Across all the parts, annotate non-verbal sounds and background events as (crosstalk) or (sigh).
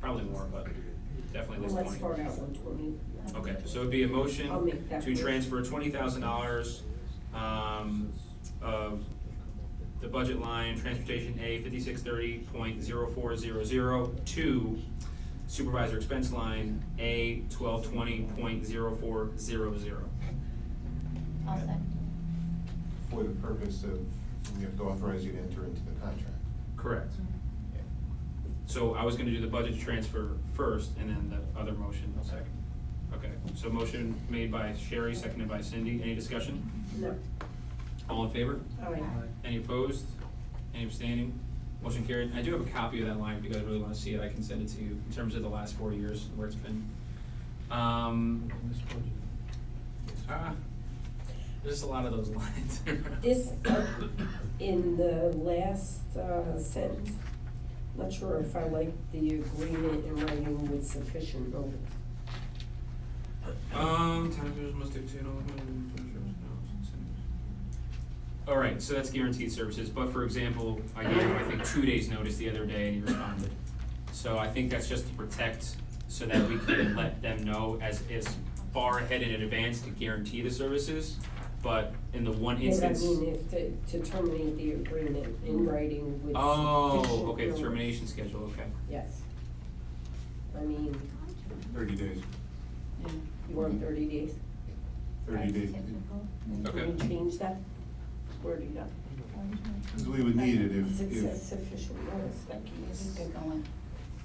probably more, but definitely at Well, let's least start twenty. out with twenty. Okay, so it'd be a motion I'll make that to motion. transfer twenty thousand dollars, um, of the budget line, transportation A fifty-six thirty point zero four zero zero to supervisor expense line A twelve twenty point zero four zero zero. I'll second. for the purpose of, we have to authorize you to enter into the contract. Correct. So I was gonna do the budget transfer first and then the other motion second. Okay, so motion made by Sherry, seconded by Cindy. Any discussion? No, All in favor? all right. Any opposed? Any abstaining? Motion carried. I do have a copy of that line if you guys really wanna see it. I can send it to you in terms of the last four years where it's been. Um, ah, there's just a lot of those (laughs) lines. This, uh, in the last uh, sentence, not sure if I like the agreement in writing with sufficient notice. Um, time users must obtain all the. Alright, so that's guaranteed services, but for example, I gave him, I think, two days' notice the other day and he responded. So I think that's just to protect, so that we can let them know as, as far ahead in advance to guarantee the services. But in the one instance, And I mean, if, to- to terminate the agreement in writing with sufficient oh, okay, the notice. termination schedule, okay. Yes. I mean, Thirty days, you want thirty days? thirty That's days. typical. Okay. Can we change that? Where do you go? Because we would need it if, It says if, sufficient notice, that can This is good going.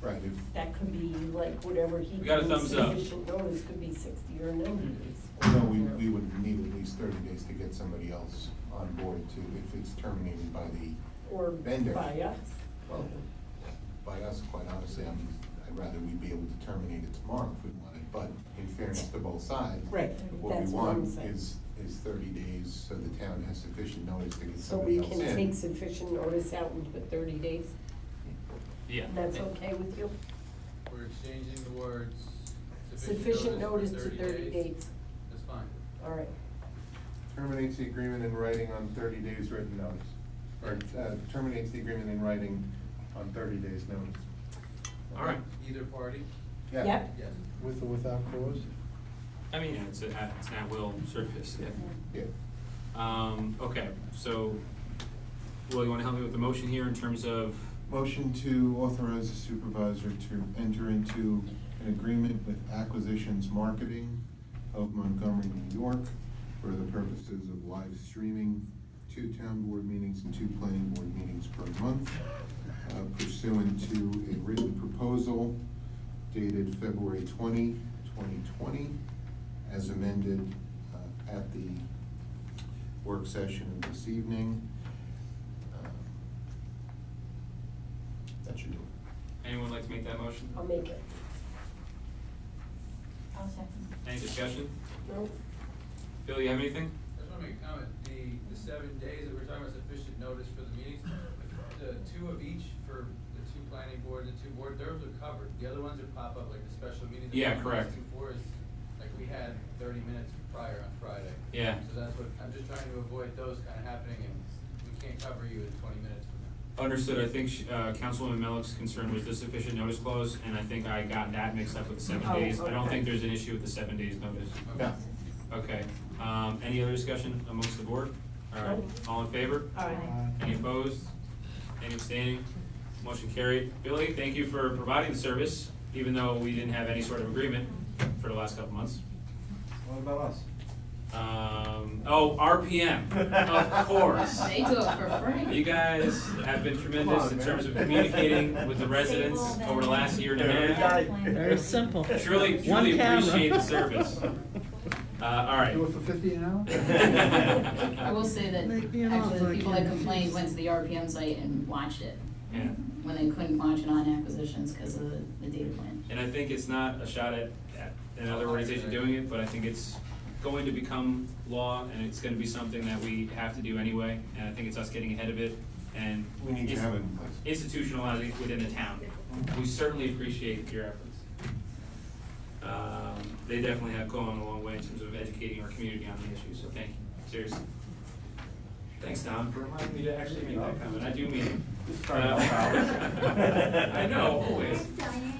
right, if, That could be like whatever he. We got a deems thumbs up. Sufficient notice could be sixty or ninety days. no, we, we would need at least thirty days to get somebody else on board to, if it's terminated by the, Or Vendor. by us. well, by us, quite honestly, I'm, I'd rather we be able to terminate it tomorrow if we wanted, but in fairness to both sides. Right, What we that's what I'm want saying. is, is thirty days, so the town has sufficient notice to get So somebody we else in. can take sufficient notice out and put thirty days, Yeah. and that's okay with you? We're exchanging the words Sufficient notice to thirty days, That's fine. all right. Terminates the agreement in writing on thirty days written notice, or uh, terminates the agreement in writing on thirty days notice. Alright, Either party? Yeah. Yep. Yes. With or without cause? I mean, it's, a- it's not will service, yeah. Yeah, Um, okay, so, Will, you wanna help me with the motion here in terms of, motion to authorize the supervisor to enter into an agreement with Acquisitions Marketing of Montgomery, New York, for the purposes of live streaming two town board meetings and two planning board meetings per month uh, pursuant to a written proposal dated February 20, 2020, as amended uh, at the work session of this evening. Um, That should do it. anyone like to make that motion? I'll make it. I'll second. Any discussion? No? Bill, you have anything? I just wanna make a comment, the, the seven days that we're talking about sufficient notice for the meetings, the two of each for the two planning board, the two board, those are covered. The other ones that pop up, like the special meetings. that Yeah, we're correct. asking for is, like, we had thirty minutes prior on Friday. Yeah. So that's what, I'm just trying to avoid those kinda happening, and we can't cover you in twenty minutes from now. Understood, I think, sh- uh, Councilwoman Melick's concern was the sufficient notice clause, and I think I got that mixed up with the seven Oh, days. I don't okay. think there's an issue with the seven days notice. Yeah. Okay, um, any other discussion amongst the board? All right, all in favor? All right. Aye. Any opposed? Any abstaining? Motion carried. Billy, thank you for providing the service, even though we didn't have any sort of agreement for the last couple months. What about us? Um, oh, RPM, (laughs) of course. They do it for free. You guys have been Come tremendous on, in man. terms of communicating with the residents Stable, over the last year and a then. half. Very simple. Truly- One truly camera. appreciate the (laughs) service. Uh, all right. Do it for fifty an hour? I will say that, Make me an actually, offer, the I people that can't complained refuse. went to the RPM site and watched it, Yeah. when they couldn't watch it on acquisitions because of the, the data plan. And I think it's not a shot at, at another organization doing it, but I think it's going to become law and it's gonna be something that we have to do anyway. And I think it's us getting ahead of it and. We need to have it in place. Institutionalizing it within the town. We certainly appreciate your efforts. Um, they definitely have gone a long way in terms of educating our community on the issue, so thank you, seriously. Thanks, Tom, for reminding me to actually make that comment, (laughs) I do mean it. Sorry about that. I know, always.